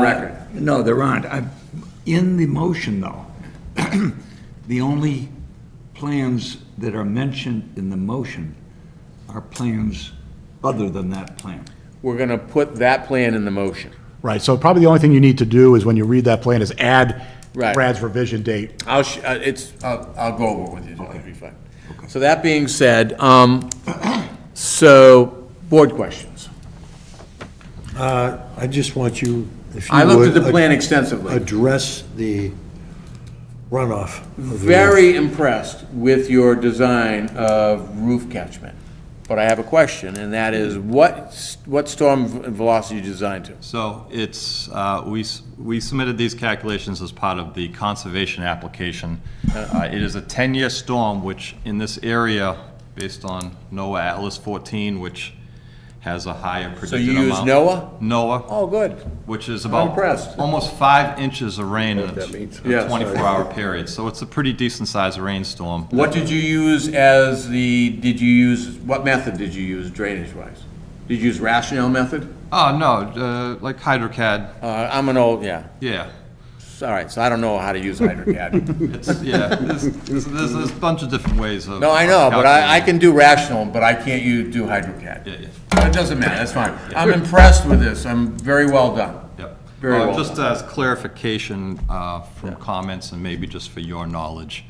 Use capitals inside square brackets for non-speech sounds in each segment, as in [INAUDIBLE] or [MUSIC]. record. No, there aren't. I- In the motion, though, [CLEARS THROAT] the only plans that are mentioned in the motion are plans other than that plan. We're going to put that plan in the motion. Right, so probably the only thing you need to do is when you read that plan is add Right. Brad's revision date. I'll, sh- uh, it's, I'll I'll go over it with you, John, it'll be fine. So that being said, um, so, board questions. Uh, I just want you, if you I looked at would, the plan ad- extensively. Address the runoff. of the roof. Very impressed with your design of roof catchment. But I have a question, and that is, what, s- what storm v- velocity you designed to? So it's, uh, we s- we submitted these calculations as part of the conservation application. Uh, It is a 10-year storm, which in this area, based on NOAA Atlas 14, which has a higher So predicted you use NOAA? amount. NOAA. Oh, good. which is about impressed. almost five inches of rain in a Yeah, sorry. 24-hour period. So it's a pretty decent-sized rainstorm. What did you use as the, did you use, what method did you use drainage-wise? Did you use rationale method? Oh, no, uh, like HydroCAD, Uh, I'm an old, yeah, yeah. all right, so I don't know how to [LAUGHS] use HydroCAD. It's, yeah, there's, there's there's a bunch of different ways of. No, I know, but I, I calculating. can do rational, but I can't you do HydroCAD. Yeah, yeah. But It doesn't matter, that's fine. I'm impressed with this, I'm very well done. Yep. Very Uh, well Just done. as clarification uh, from comments and maybe just for your knowledge,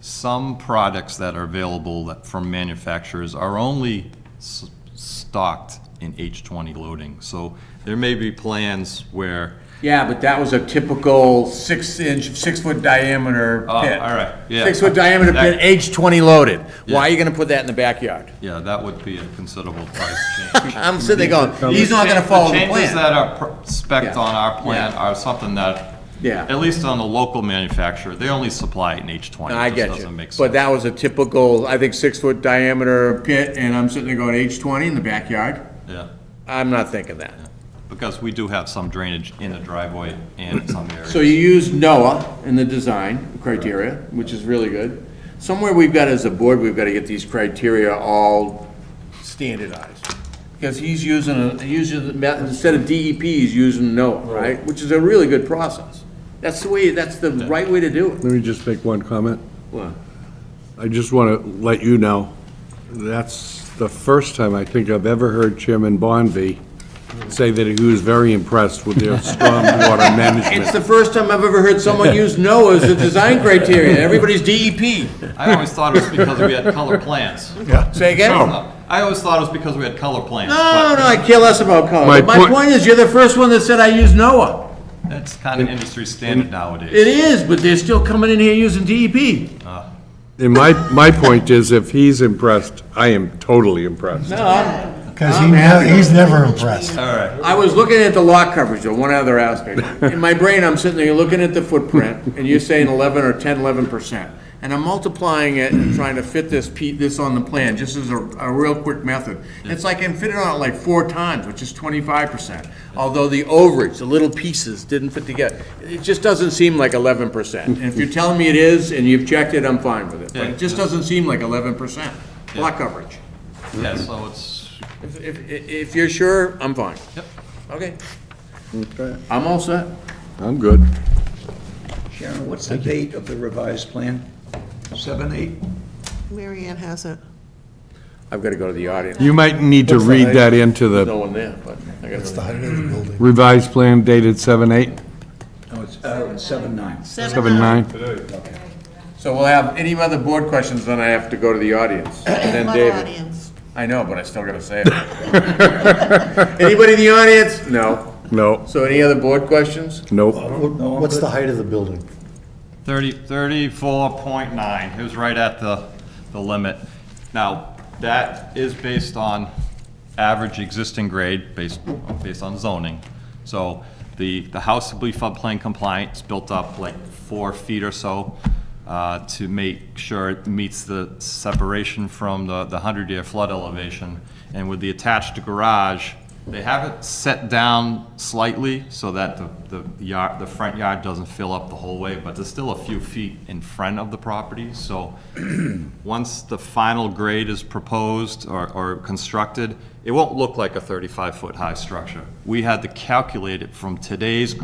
some products that are available that- from manufacturers are only s- stocked in H20 loading. So there may be plans where, Yeah, but that was a typical six-inch, six-foot diameter pit. Oh, all right, yeah. Six-foot diameter pit, That- age twenty loaded. Why Yeah. are you gonna put that in the backyard? yeah, that would be a considerable price change. I'm sitting there going, [LAUGHS] he's not gonna follow the plan. changes that are pr- spec'd Yeah. on our plan Yeah. are something that, Yeah. at least on the local manufacturer, they only supply it in H20. No, I It just get doesn't you. make But sense. that was a typical, I think, six-foot diameter pit, and I'm sitting there going H20 in the backyard? Yeah, I'm not thinking that. because we do have some drainage in the driveway and in some areas. So you use NOAA in the design criteria, which is really good. Somewhere we've got, as a board, we've got to get these criteria all standardized. Because he's using, a using, the method- instead of DEP, he's using NOAA, right? Which is a really good process. That's the way, that's the right way to do it. Let me just make one comment. Well, I just want to let you know, that's the first time I think I've ever heard Chairman Bonvy say that he was very impressed with their stormwater It's management. the first time I've ever heard [LAUGHS] someone use NOAA as a design criteria. Everybody's E DEP. I always thought it was because we had color plans. Say again? Oh. No, I always thought it was because we had color plans. no, no, I care less about color. My But My point- point is, you're the first one that said I use NOAA. but That's kind of industry standard nowadays. It is, but they're still coming in here using E DEP. And my, my point is, if he's impressed, I am totally impressed. Because he never, he's never impressed. All right, I was looking at the lot coverage, though, one other aspect. In my brain, I'm sitting there looking at the footprint, and you're saying eleven or 10, 11 percent. And I'm multiplying it and trying to fit this, pe- this on the plan, just as a, a real quick method. It's like, I'm fitting on it like four times, which is twenty-five percent. Although the overage, the little pieces didn't fit together. It just doesn't seem like eleven percent. And if you're telling me it is, and you've checked it, I'm fine with it. But it just doesn't seem like eleven percent lot coverage. yeah, so it's, If, if, if you're sure, I'm fine. Yep. Okay. I'm all set. I'm good. Sharon, what's the date of the revised plan? Seven, eight? Mary Ann has it. I've got to go to the audience. You might need to read that into No the one there, but I got It's to. the height of the building. revised plan dated 7/8, No, it's, uh, seven, nine. 7/9. So we'll have any other board questions, then I have to go to the audience. And then Lot of David. audience. I know, but I still got to say it. [LAUGHS] Anybody in the audience? No. No, So any other board questions? nope. I'm What's the height of the building? 30, 34.9, it was right at the, the limit. Now, that is based on average existing grade, based, based on zoning. So the, the house will be floodplain compliant, it's built up like four feet or so uh, to make sure it meets the separation from the, the 100-year flood elevation. And with the attached garage, they have it set down slightly so that the, the yard, the front yard doesn't fill up the whole way, but there's still a few feet in front of the property, so [CLEARS THROAT] once the final grade is proposed or, or constructed, it won't look like a thirty-five foot high structure. We had to calculate it from today's